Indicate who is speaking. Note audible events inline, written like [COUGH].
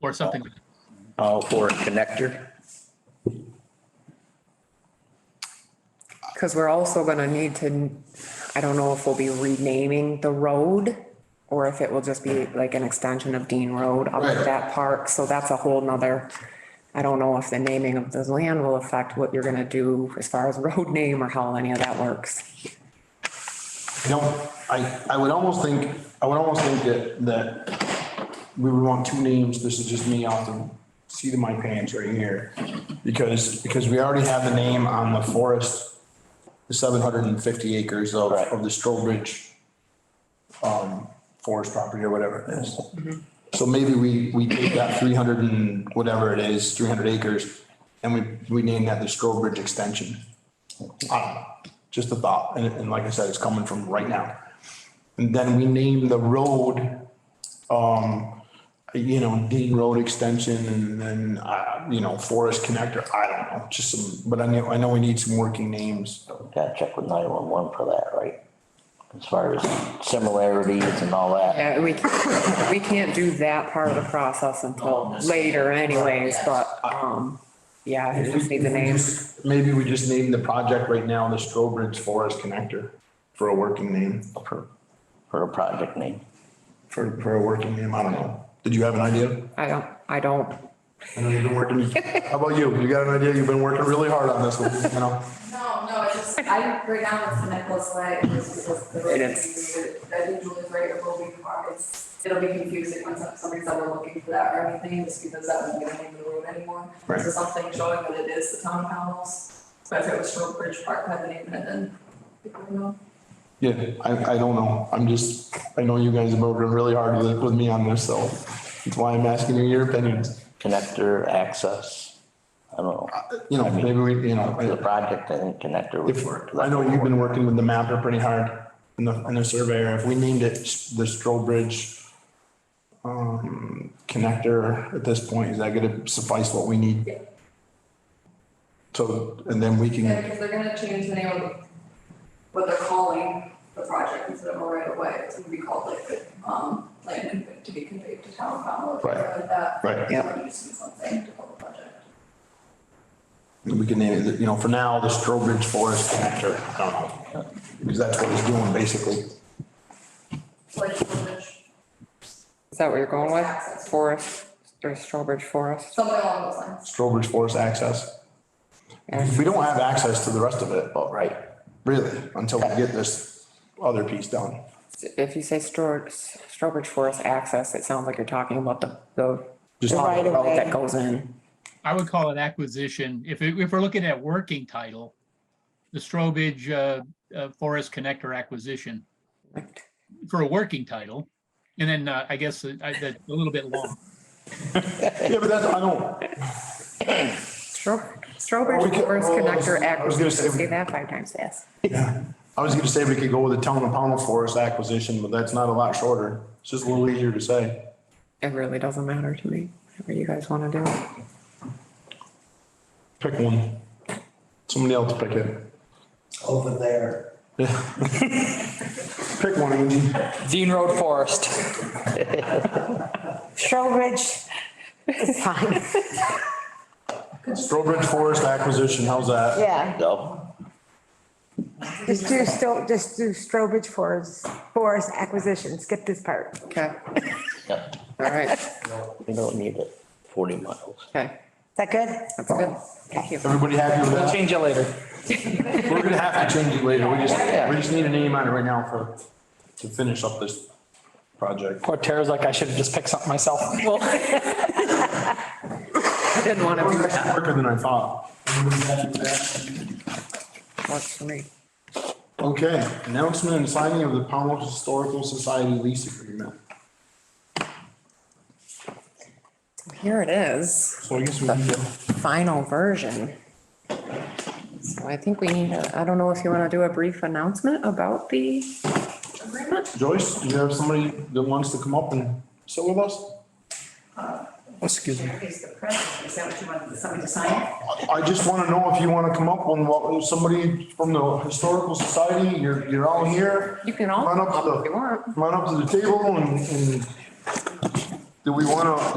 Speaker 1: or something.
Speaker 2: all uh, for a connector.
Speaker 3: Because we're also gonna need to, I don't know if we'll be renaming the road or if it will just be like an extension of Dean Road up
Speaker 4: Right.
Speaker 3: at that park. So that's a whole nother, I don't know if the naming of the land will affect what you're gonna do as far as [LAUGHS] road name or how any of that works.
Speaker 4: You know, I, I would almost think, I would almost think that, that we would want two names, this is just me off the seat of my pants right here. Because, because we already have the name on the forest, the seven hundred and fifty acres of,
Speaker 2: Right.
Speaker 4: of the Strobridge um, forest property or whatever it is. So maybe we, we take that three hundred and whatever it is, three hundred acres, and we, we name that the Strobridge Extension. I don't know, just a thought, and, and like I said, it's coming from right now. And then we name the road, um, you know, Dean Road Extension and then, uh, you know, Forest Connector, I don't know, just some, but I know, I know we need some working names.
Speaker 5: Gotta check with nine-one-one for that, right? As far as similarities and all that.
Speaker 3: Yeah, Uh, we, we can't do that part of the process until later anyways, but, um, yeah, I just need the names.
Speaker 4: Maybe we just name the project right now, the Strobridge Forest Connector for a working name,
Speaker 5: For, for a project name.
Speaker 4: for, for a working name, I don't know. Did you have an
Speaker 3: [LAUGHS]
Speaker 4: idea?
Speaker 3: I don't, I don't
Speaker 4: I know you've been working, how about you? You got an idea? You've been working really hard on this one, you know?
Speaker 6: No, no, it's just, I, right now it's the Nicholas Way, it's just the.
Speaker 3: It is.
Speaker 6: I think Julie's right, it will be hard, it's, it'll be confusing when some- somebody's ever looking for that or anything, just because that won't be the name of the road anymore.
Speaker 4: Right.
Speaker 6: So something showing that it is the town house, but if it was Short Bridge Park, had the name in it, then. people would know.
Speaker 4: Yeah, I, I don't know. I'm just, I know you guys have been working really hard with, with me on this, so that's why I'm asking you your opinions.
Speaker 5: Connector, access, I don't know.
Speaker 4: You know, maybe we, you know,
Speaker 5: For the
Speaker 4: I-
Speaker 5: project, I think connector would
Speaker 4: Uh, if,
Speaker 5: work.
Speaker 4: I know you've been working with the mapper pretty hard and the, and the surveyor. If we named it the Strobridge um, connector at this point, is that gonna suffice what we need? So, and then we
Speaker 6: Yeah,
Speaker 4: can,
Speaker 6: because they're gonna change the name of what they're calling the project instead of a right of way, it's gonna be called like, the, um, land conveyed- to be conveyed to town council, or something like that.
Speaker 4: right,
Speaker 3: Yep.
Speaker 6: Or just do something to call the project.
Speaker 4: we can name it, you know, for now, the Strobridge Forest Connector, I don't know. Because that's what he's doing basically.
Speaker 6: Like, village,
Speaker 3: Is that what you're going with?
Speaker 6: Access.
Speaker 3: Forest, or Strawbridge Forest?
Speaker 6: something along those lines.
Speaker 4: Strobridge Forest access.
Speaker 3: Yeah.
Speaker 4: We don't have access to the rest of it,
Speaker 5: All right.
Speaker 4: really, until we get this other piece done.
Speaker 3: If you say Stor- Strawbridge Forest access, it sounds like you're talking about the, the
Speaker 4: Just
Speaker 3: the
Speaker 4: talking about
Speaker 3: road that goes in.
Speaker 1: I would call it acquisition. If, it- if we're looking at working title, the Strobridge, uh, uh, Forest Connector Acquisition for a working title. And then, uh, I guess, uh, I, that's a little bit long.
Speaker 4: Yeah, but that's, I don't,
Speaker 3: Stro-
Speaker 4: Well, we
Speaker 3: Strawbridge
Speaker 4: could-
Speaker 3: Forest
Speaker 4: well,
Speaker 3: Connector
Speaker 4: I was gonna
Speaker 3: Acquisition,
Speaker 4: say-
Speaker 3: say that five times fast.
Speaker 4: yeah. I was gonna say we could go with the town of Pownell Forest acquisition, but that's not a lot shorter. It's just a little easier to say.
Speaker 3: It really doesn't matter to me, whatever you guys wanna do.
Speaker 4: Pick one. Somebody else pick it.
Speaker 7: over there.
Speaker 4: [LAUGHS] Pick one, Angie.
Speaker 8: Dean Road Forest.
Speaker 9: Strobridge is fine.
Speaker 4: Strobridge Forest acquisition, how's that?
Speaker 9: Yeah,
Speaker 5: So,
Speaker 9: just do, Sto- just do Strobridge Forest, Forest acquisition, skip this part.
Speaker 3: Okay,
Speaker 5: yeah,
Speaker 3: all right,
Speaker 5: we don't need it forty miles.
Speaker 3: okay,
Speaker 9: Is that good?
Speaker 3: that's good. Thank you.
Speaker 4: Everybody happy with
Speaker 8: We'll
Speaker 4: that?
Speaker 8: change it later.
Speaker 4: We're gonna have to change it later. We just, we just need a name on it right now for, to finish up this project.
Speaker 8: Poor Tara's like, I should have just picked something myself.
Speaker 3: I didn't wanna do that.
Speaker 4: Quicker than I thought.
Speaker 3: Works for me.
Speaker 4: Okay, announcement and signing of the Pownell Historical Society lease agreement.
Speaker 3: Here it is.
Speaker 4: So I guess we need to,
Speaker 3: final version. So I think we need, a- I don't know if you want to do a brief announcement about the agreement?
Speaker 4: Joyce, do you have somebody that wants to come up and sit with us?
Speaker 8: Excuse me.
Speaker 6: Here's Uh, the present, is that what you wanted, somebody to sign?
Speaker 4: I just want to know if you want to come up on what, somebody from the Historical Society, you're, you're all here.
Speaker 3: You can all
Speaker 4: Run
Speaker 3: come
Speaker 4: up
Speaker 3: up
Speaker 4: the-
Speaker 3: if you want.
Speaker 4: Come on up to the table and, and do we want to,